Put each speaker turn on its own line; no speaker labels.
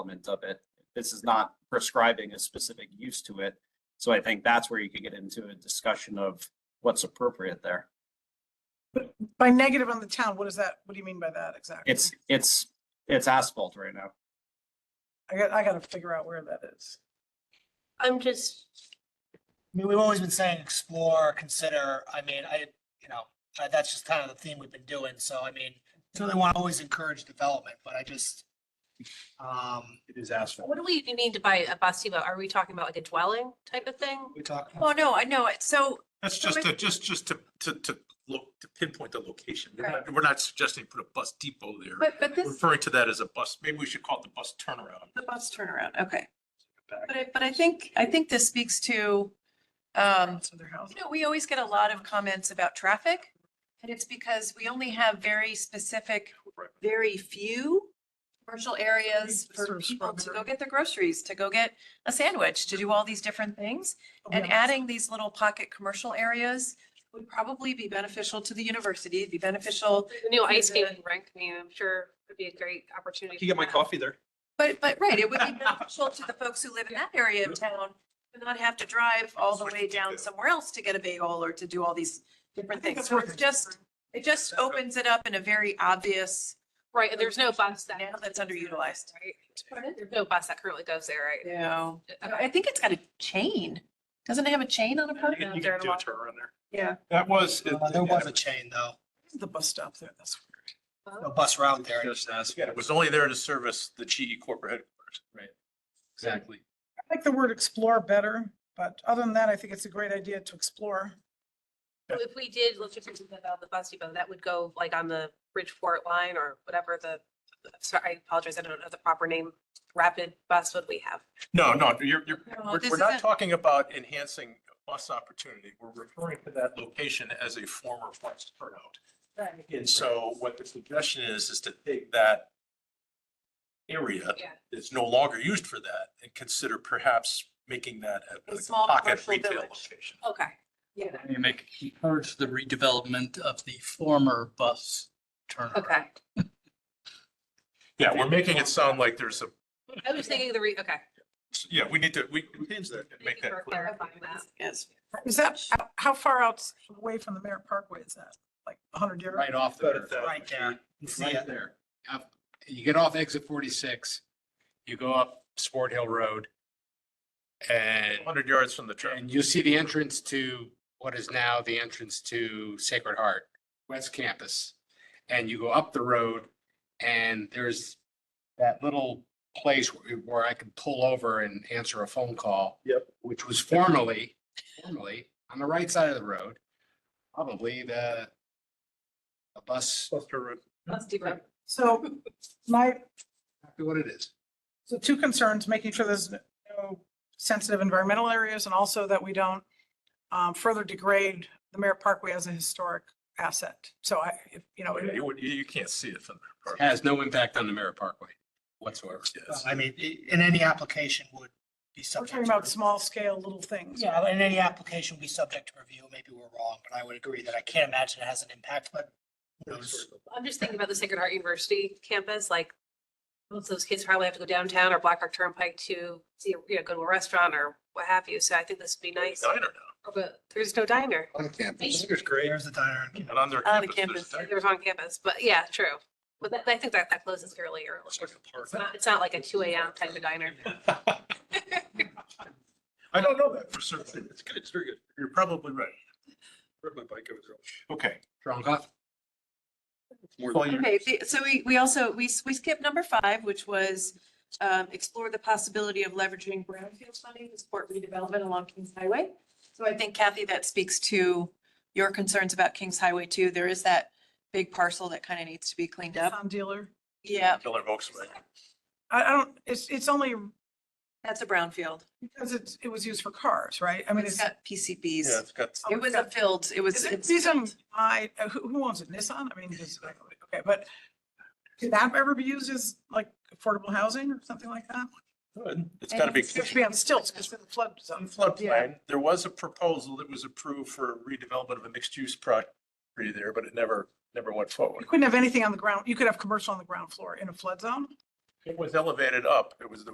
element of it. This is not prescribing a specific use to it. So I think that's where you could get into a discussion of what's appropriate there.
By negative on the town, what is that? What do you mean by that exactly?
It's, it's, it's asphalt right now.
I got, I gotta figure out where that is.
I'm just,
I mean, we've always been saying explore, consider, I mean, I, you know, uh, that's just kind of the theme we've been doing, so I mean, really want to always encourage development, but I just, um,
It is asphalt.
what do we need to buy a basima? Are we talking about like a dwelling type of thing?
we talked.
Well, Oh, no, I know it. So
That's
So
just
if-
to, just, just to, to, to look, to pinpoint the location. We're
Right.
not, we're not suggesting put a bus depot there.
But, but
We're
this,
Referring to that as a bus, maybe we should call it the bus turnaround.
the bus turnaround, okay.
Back.
But I, but I think, I think this speaks to, um,
It's in their house.
you know, we always get a lot of comments about traffic. And it's because we only have very specific,
Right.
very few commercial areas
Sort
for
of
people to
scrubber.
go get their groceries, to go get a sandwich, to do all these different things.
Oh,
And
Oh, Yeah.
adding these little pocket commercial areas would probably be beneficial to the university, it'd be beneficial
The new ice
Yeah.
skating rink, I mean, I'm sure would be a great opportunity.
You get my
for that.
coffee there.
But, but, right, it would be beneficial to the folks who live in that area of town to not have to drive all the way down somewhere else to get a bagel or to do all these different things. So it's just, it just opens it up in a very obvious,
Right, and there's no bus that.
Now that's underutilized.
Right? There's no bus that currently goes there, right?
you know,
Okay.
I think it's got a chain. Doesn't it have a chain on a
You
part?
can you
there
can
are a
do a
lot.
turnaround there.
Yeah.
That was.
Uh, There was a chain though,
The bus stop there, that's weird.
a bus route there.
It was only there to service the GE corporate headquarters.
Exactly.
I like the word explore better, but other than that, I think it's a great idea to explore.
So If we did, let's just think about the bus depot, that would go like on the Bridgeport line or whatever the, sorry, I apologize, I don't know the proper name. Rapid bus would we have?
No, no, you're, you're,
No,
we're,
this
we're not
isn't-
talking about enhancing bus opportunity. We're referring to that location as a former bus turnout. And so what the suggestion is, is to take that area
Yeah.
that's no longer used for that and consider perhaps making that a-
A
like a
small
pocket
commercial
retail
village.
location.
Okay.
You make, encourage the redevelopment of the former bus turnaround.
Okay.
Yeah, we're making it sound like there's a,
I was thinking the re, okay.
yeah, we need to, we. we need to
Thank
Make
you
that
for
clear.
clarifying that.
Yes.
Is that, how far out away from the Merritt Parkway is that? Like hundred yards?
Right off
Better
the,
that.
Right there. You see
right
it.
there. Up- You get off exit forty-six, you go up Sport Hill Road. And,
Hundred yards from the train.
and you'll see the entrance to what is now the entrance to Sacred Heart, West Campus. And you go up the road and there's that little place where where I could pull over and answer a phone call.
Yep.
Which was formerly, formerly on the right side of the road, probably the a bus,
Cluster route.
Let's do that.
So my,
exactly what it is.
so two concerns, making sure there's no sensitive environmental areas and also that we don't um, further degrade the Merritt Parkway as a historic asset. So I, if, you know,
Yeah, You, would- you- you can't see it from the.
Has no impact on the Merritt Parkway whatsoever.
Yes.
I mean, i- in any application would be
we're
subject.
talking
to
about
review.
small scale little things.
Yeah, in any application would be subject to review, maybe we're wrong, but I would agree that I can't imagine it has an impact, but who knows?
I'm just thinking about the Sacred Heart University campus, like most of those kids probably have to go downtown or Black Rock Turnpike to see, you know, go to a restaurant or what have you. So I think this would be nice.
Diner
Oh, But there's no diner.
On campus.
It's great.
There's the diner.
And on their
On the
campus. there's a
campus,
There's on campus, but yeah, true. But that, I think that, that closes fairly early.
It's like a
It's
park.
not, it's not like a two AM type of diner.
I don't know that for certain. It's good, it's very good. You're probably right. Rode my bike over there. Okay.
Drunk off.
Okay, the- so we, we also, we, s- we skipped number five, which was um, explore the possibility of leveraging brownfield funding to support redevelopment along Kings Highway. So I think Kathy, that speaks to your concerns about Kings Highway too. There is that big parcel that kind of needs to be cleaned up.
Nissan dealer.
Yeah,
Killer Volkswagen.
I, I don't, it's, it's only
that's a brownfield.
because it's, it was used for cars, right? I mean,
It's
it's.
got PCBs.
Yeah, it's got.
It was a field, it was.
Is it
it's
season, I, uh, who, who owns it? Nissan? I mean, just, okay, but could that ever be used as like affordable housing or something like that?
It's gotta be.
It has to be on stilts because of the flood zone.
Floodplain. There was a proposal that was approved for redevelopment of a mixed-use property there, but it never, never went
You
forward.
couldn't have anything on the ground. You could have commercial on the ground floor in a flood zone.
It was elevated up. It was, the